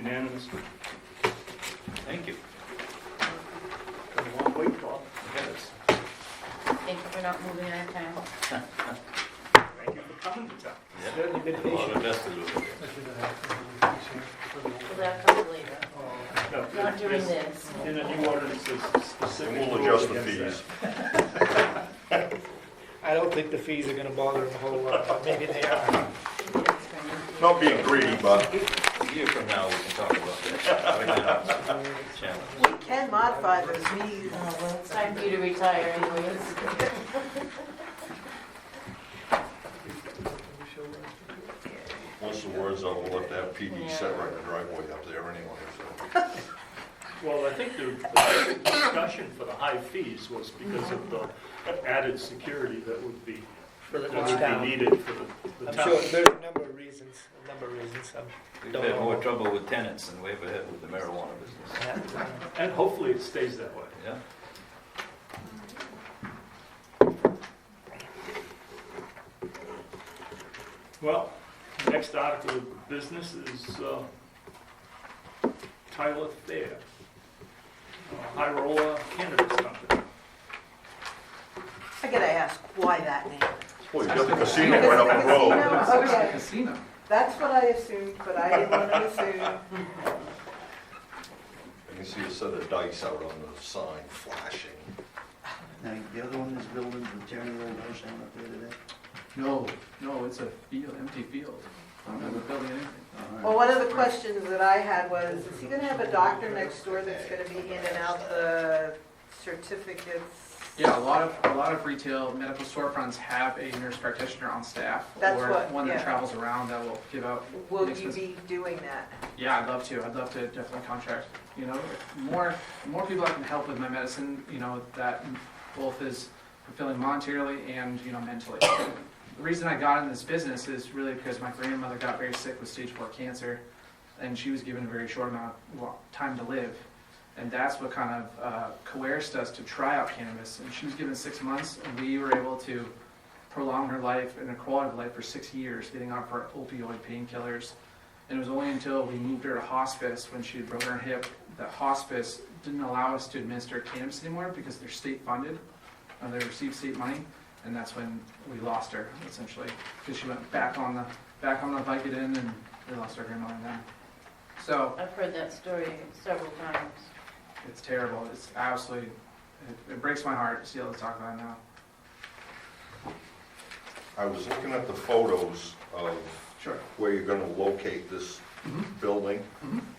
Unanimous. Thank you. Been a long wait, Bob. Yes. Thank you for not moving out of town. Thank you for coming to town. Yeah. Certainly been A lot patient. invested with it. Well, that comes later. No, Not during there's- this. In a new ordinance, there's a specific. We'll rule adjust the against that. fees. I don't think the fees are gonna bother him a whole lot, but maybe they are. Not being greedy, but A year from now, we can talk about that. Challenge. We can modify those meetings. It's time for you to retire anyways. once the word's out, we'll let that PD set right in the driveway up there anyway, so. Well, I think the the discussion for the high fees was because of the added security that would be, For the that would be needed for the- the I'm sure, town. there's a number of reasons, a number of reasons, um, We've Don't had know. more trouble with tenants than we ever had with the marijuana business. And hopefully it stays that way. Yeah? Well, the next article of business is uh, Tyler Thayer, uh, High Roller Cannabis Company. I gotta ask, why that name? Well, you got the casino right up the road. Because the casino- okay. That's what I assumed, but I didn't want to assume. You can see a set of dice out on the sign flashing. Now, the other one is building the Terry Old House down up there today? No, no, it's a field, empty field. I'm not building anything. Well, one of the questions that I had was, is he gonna have a doctor next door that's gonna be in and out the certificates? Yeah, a lot of, a lot of retail medical storefronts have a nurse practitioner on staff. That's what- Or one that yeah. travels around that will give out, Will you be doing that? yeah, I'd love to, I'd love to definitely contract, you know, more, more people I can help with my medicine, you know, that both is fulfilling monetarily and, you know, mentally. The reason I got in this business is really because my grandmother got very sick with stage four cancer, and she was given a very short amount of well, time to live. And that's what kind of uh, coerced us to try out cannabis. And she was given six months, and we were able to prolong her life and her quality of life for six years, getting off her opioid painkillers. And it was only until we moved her to hospice when she had broken her hip that hospice didn't allow us to administer cannabis anymore because they're state funded, uh, they receive state money, and that's when we lost her essentially because she went back on the back on the Vicodin and we lost our grandmother then. So. I've heard that story several times. It's terrible. It's absolutely, it, it breaks my heart to see all this talk about it now. I was looking at the photos of Sure. where you're gonna locate this building.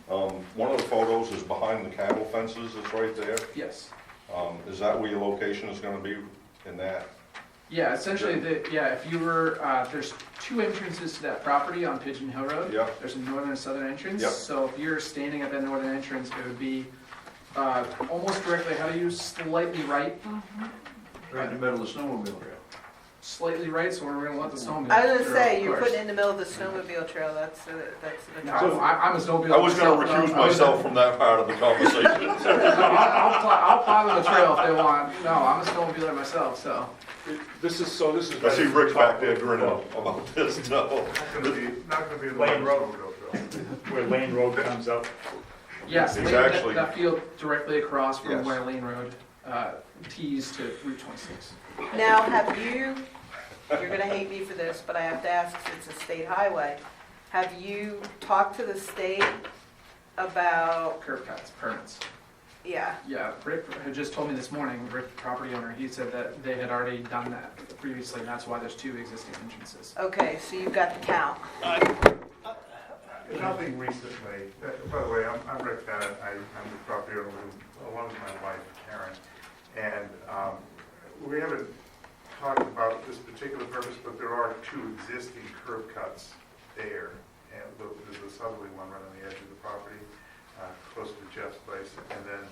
Um, one of the photos is behind the cattle fences, it's right there. Yes. Um, is that where your location is gonna be in that? Yeah, essentially, the, yeah, if you were, uh, there's two entrances to that property on Pigeon Hill Road. Yeah. There's a northern and southern entrance. Yeah. So if you're standing at that northern entrance, it would be, uh, almost directly, how do you, slightly right? Mm-hmm. Right in the middle of the snowmobile trail. Slightly right, so we're gonna let the snowmobile. I was gonna through, say, of you're course. putting in the middle of the snowmobile trail, that's, a- that's. an No, atrocity. I, I'm a snowmobile. I was gonna myself, recuse no, I was- myself from that part of the conversation. No, I'll, I'll plow, I'll plow the trail if they want. No, I'm a snowmobiler myself, so. This is, so this is. I see Rick back there grinning about this, no. Lane Road. Where Lane Road comes up. Yes, He's Lane- that- actually- that field directly across Yes. from where Lane Road uh, tees to Route 26. Now, have you, you're gonna hate me for this, but I have to ask, 'cause it's a state highway, have you talked to the state about, Curb cuts, permits. yeah, Yeah, Rick had just told me this morning, Rick, property owner, he said that they had already done that previously, and that's why there's two existing entrances. okay, so you've got the count. Nothing recently. Uh, By the way, I'm I'm Rick Bennett. I- I'm the property owner who- along with my wife Karen. And um, we haven't talked about this particular purpose, but there are two existing curb cuts there. And the- There's a southerly one right on the edge of the property, uh, close to Jeff's place, and then,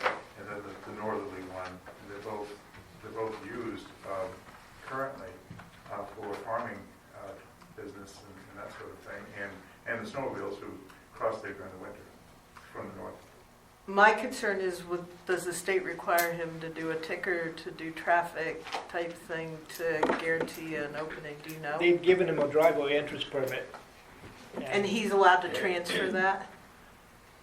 and then the- the northerly one. And They're both, they're both used um, currently uh, for farming uh, business and and that sort of thing. And and the snowmobiles who cross there during the winter from the north. My concern is with, does the state require him to do a ticker, to do traffic type thing to guarantee an opening, do you know? They've given him a driveway entrance permit. And he's allowed to transfer that?